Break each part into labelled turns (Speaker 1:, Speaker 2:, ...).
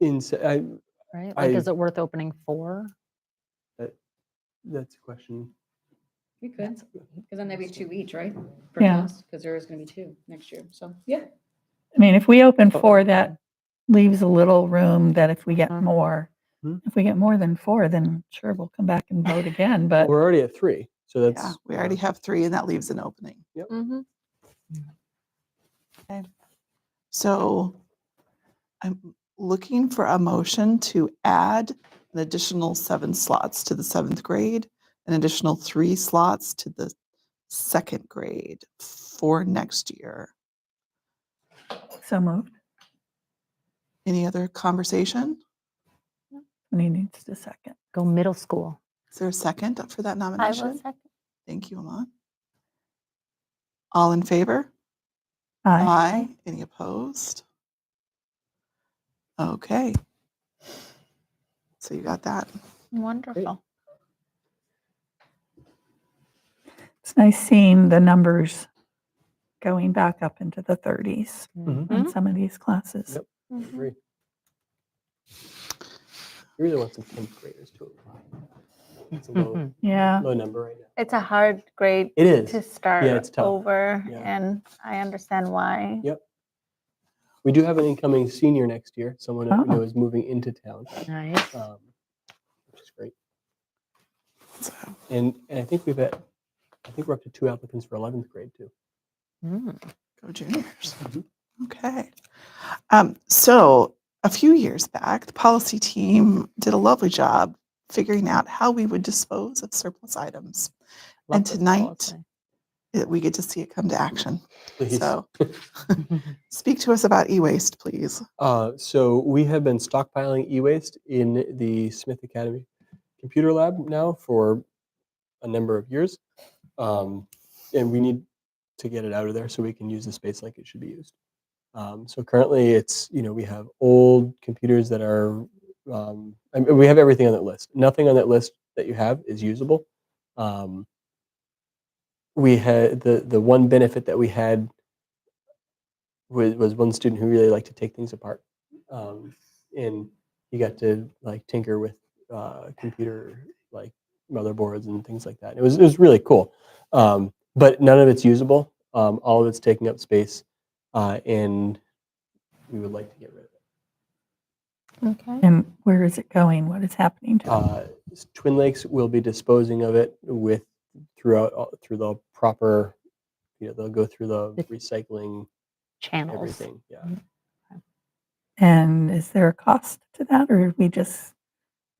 Speaker 1: Ins- I,
Speaker 2: right? Like,
Speaker 1: I-
Speaker 2: is it worth opening four?
Speaker 1: that's a question.
Speaker 3: We could, because then that'd be two each, right?
Speaker 4: Yeah.
Speaker 3: Because there is going to be two next year, so, yeah.
Speaker 4: I mean, if we open
Speaker 1: Oh.
Speaker 4: four, that leaves a little room that if we get
Speaker 2: Mhm.
Speaker 4: more,
Speaker 1: Hmm.
Speaker 4: if we get more than four, then sure, we'll come back and vote again, but
Speaker 1: We're already at three, so that's. um,
Speaker 5: Yeah, we already have three and that leaves an opening.
Speaker 3: Mm-hmm.
Speaker 5: So I'm looking for a motion to add an additional seven slots to the seventh grade, an additional three slots to the second grade for next year.
Speaker 4: so moved.
Speaker 5: Any other conversation?
Speaker 4: And he needs to second.
Speaker 2: Go middle school.
Speaker 5: Is there a second for that
Speaker 6: I will
Speaker 5: nomination?
Speaker 6: second.
Speaker 5: Thank you, Alon. All in favor?
Speaker 1: Uh,
Speaker 4: Aye.
Speaker 5: Aye. Any opposed? Okay. So you got that.
Speaker 6: Wonderful.
Speaker 4: It's nice seeing the numbers going back up into the thirties
Speaker 1: Mhm.
Speaker 4: in some of these classes.
Speaker 1: Yep.
Speaker 6: Mm-hmm.
Speaker 1: Three. We really want some tenth graders to apply. It's a low,
Speaker 2: Mhm.
Speaker 4: Mm-hmm. Yeah.
Speaker 1: low number right now.
Speaker 6: It's a hard grade
Speaker 1: It
Speaker 6: to
Speaker 1: is.
Speaker 6: start
Speaker 1: it's tough.
Speaker 6: over,
Speaker 1: Yeah.
Speaker 6: and I understand why.
Speaker 1: Yep. We do have an incoming senior next year, someone that we
Speaker 4: Oh.
Speaker 1: know is moving into town,
Speaker 2: Nice.
Speaker 1: um, which is great.
Speaker 5: So
Speaker 1: And, and I think we've had, I think we're up to two applicants for eleventh grade too.
Speaker 2: Mm.
Speaker 5: Go juniors.
Speaker 1: Mhm.
Speaker 5: Okay. Um, so a few years back, the policy team did a lovely job figuring out how we would dispose of surplus items. And
Speaker 2: Love this
Speaker 5: tonight-
Speaker 2: policy.
Speaker 5: Uh, We get to see it come to action.
Speaker 1: Please.
Speaker 5: So speak to us about e-waste, please.
Speaker 1: Uh, so we have been stockpiling e-waste in the Smith Academy computer lab now for a number of years, um, and we need to get it out of there so we can use the space like it should be used. Um, so currently, it's you know we have old computers that are um, I mean, we have everything on that list. Nothing on that list that you have is usable. Um, we had the the one benefit that we had was, was one student who really liked to take things apart um, and he got to like tinker with uh, computer like motherboards and things like that it was, it was really cool um, but none of it's usable um, all of it's taking up space uh, and we would like to get rid of it
Speaker 6: Okay.
Speaker 4: And where is it going? What is happening to it?
Speaker 1: uh, twin lakes will be disposing of it with throughout all- through the proper you know they'll go through the
Speaker 2: The-
Speaker 1: recycling
Speaker 2: Channels.
Speaker 1: everything yeah
Speaker 4: And is there a cost to that or we just,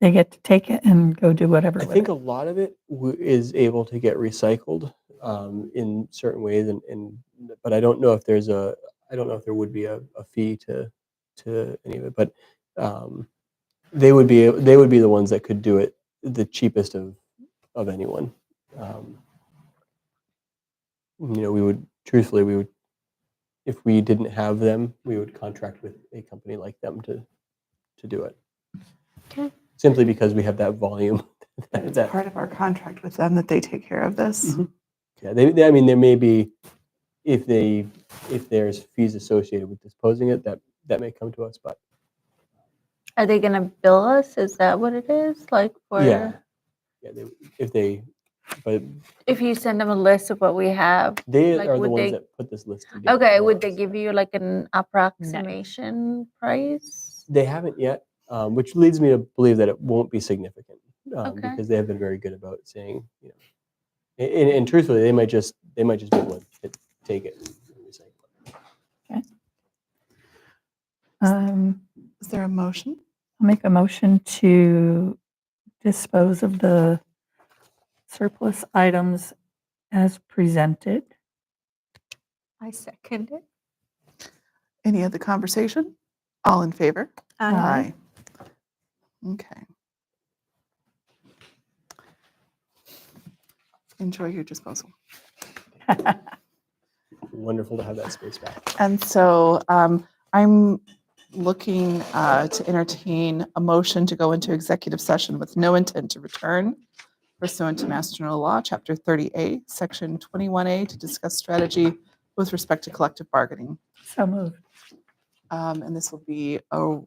Speaker 4: they get to take it and go do whatever
Speaker 1: I
Speaker 4: with
Speaker 1: think
Speaker 4: it?
Speaker 1: a lot of it w- is able to get recycled um, in certain ways, and, and but I don't know if there's a I don't know if there would be a, a fee to to any of it, but um, they would be they would be the ones that could do it the cheapest of of anyone. Um, you know, we would truthfully we would if we didn't have them, we would contract with a company like them to to do it.
Speaker 6: Okay.
Speaker 1: Simply because we have that volume. that-
Speaker 5: It's
Speaker 1: that-
Speaker 5: part of our contract with them that they take care of this.
Speaker 1: Mhm. Yeah, they, they- I mean, there may be, if they, if there's fees associated with disposing it, that, that may come to us, but
Speaker 6: Are they going to bill us? Is that what it is? Like for
Speaker 1: yeah. Yeah, they, if they, but
Speaker 6: if you send them a list of what we have.
Speaker 1: they
Speaker 6: Like,
Speaker 1: are the
Speaker 6: would
Speaker 1: ones
Speaker 6: they-
Speaker 1: that put this list together.
Speaker 6: Okay,
Speaker 1: for
Speaker 6: would they
Speaker 1: us.
Speaker 6: give you like an approximation price?
Speaker 1: They haven't yet, um, which leads me to believe that it won't be significant, um,
Speaker 6: Okay.
Speaker 1: because they have been very good about saying, you know, a- and, and truthfully, they might just, they might just be able to take it. and recycle it.
Speaker 4: Um,
Speaker 5: Is there a motion?
Speaker 4: I'll make a motion to dispose of the surplus items as presented.
Speaker 6: I second it.
Speaker 5: Any other conversation? All in favor?
Speaker 4: Aye.
Speaker 5: Aye. Okay. Enjoy your disposal.
Speaker 1: Wonderful to have that space back.
Speaker 5: And so um, I'm looking uh, to entertain a motion to go into executive session with no intent to return pursuant to Mass General Law, Chapter 30A, Section 21A, to discuss strategy with respect to collective bargaining.
Speaker 4: So moved.
Speaker 5: Um, And this will be a